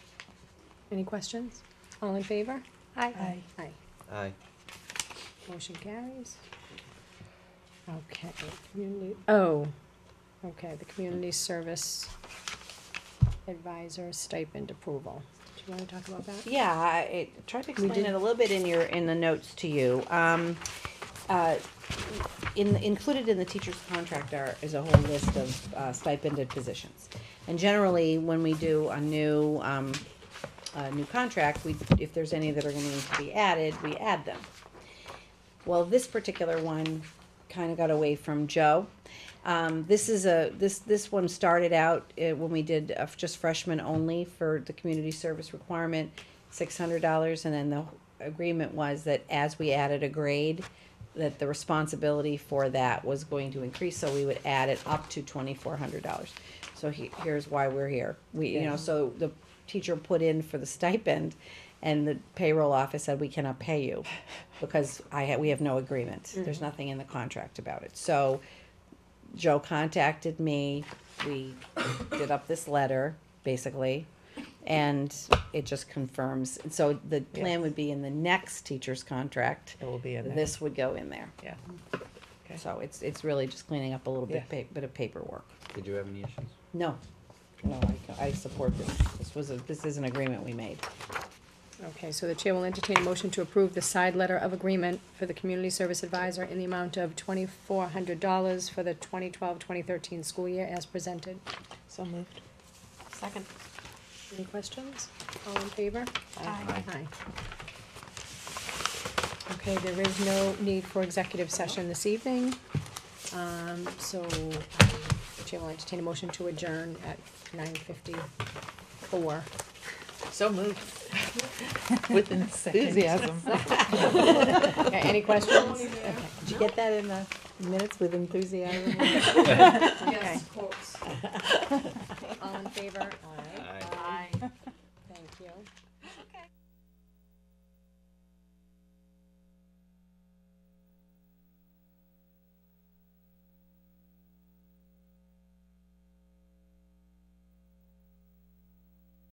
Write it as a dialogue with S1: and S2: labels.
S1: Any questions? All in favor?
S2: Aye.
S1: Aye.
S3: Aye.
S1: Motion carries. Okay, community, oh, okay, the community service advisor stipend approval. Do you wanna talk about that?
S2: Yeah, I it- tried to explain
S1: did-
S2: it a little bit in your, in the notes to you. Um, uh, in, included in the teacher's contract are, is a whole list of uh, stipended positions. And generally, when we do a new, um, a new contract, we, if there's any that are gonna need to be added, we add them. Well, this particular one kind of got away from Joe. Um, this is a, this, this one started out uh, when we did uh, just freshmen only for the community service requirement, six hundred dollars, and then the agreement was that as we added a grade, that the responsibility for that was going to increase, so we would add it up to twenty-four hundred dollars. So he, here's why we're here. We, you know, so the teacher put in for the stipend, and the payroll office said, we cannot pay you, because I, ha- we have no agreement.
S4: Mm-hmm.
S2: There's nothing in the contract about it. So Joe contacted me, we did up this letter, basically, and it just confirms. And So the plan would be in the next teacher's contract,
S4: It will be in there,
S2: this would go in there.
S4: yeah. Okay.
S2: So it's, it's really just cleaning up a little bit,
S4: Yeah.
S2: pa- bit of paperwork.
S3: Did you have any issues?
S2: No, no, I, I support this. This was a, this is an agreement we made.
S1: Okay, so the chair will entertain a motion to approve the side letter of agreement for the community service advisor in the amount of twenty-four hundred dollars for the 2012-2013 school year as presented.
S4: So moved.
S1: Second. Any questions? All in favor?
S3: Aye.
S1: Aye. Okay, there is no need for executive session this evening. Um, so, um, the Chair will entertain a motion to adjourn at nine fifty-four.
S4: So moved. With enthusiasm.
S1: Okay, any questions?
S2: Did you get that in the minutes with enthusiasm?
S1: Okay. All in favor? Aye.
S3: Aye.
S1: Thank you.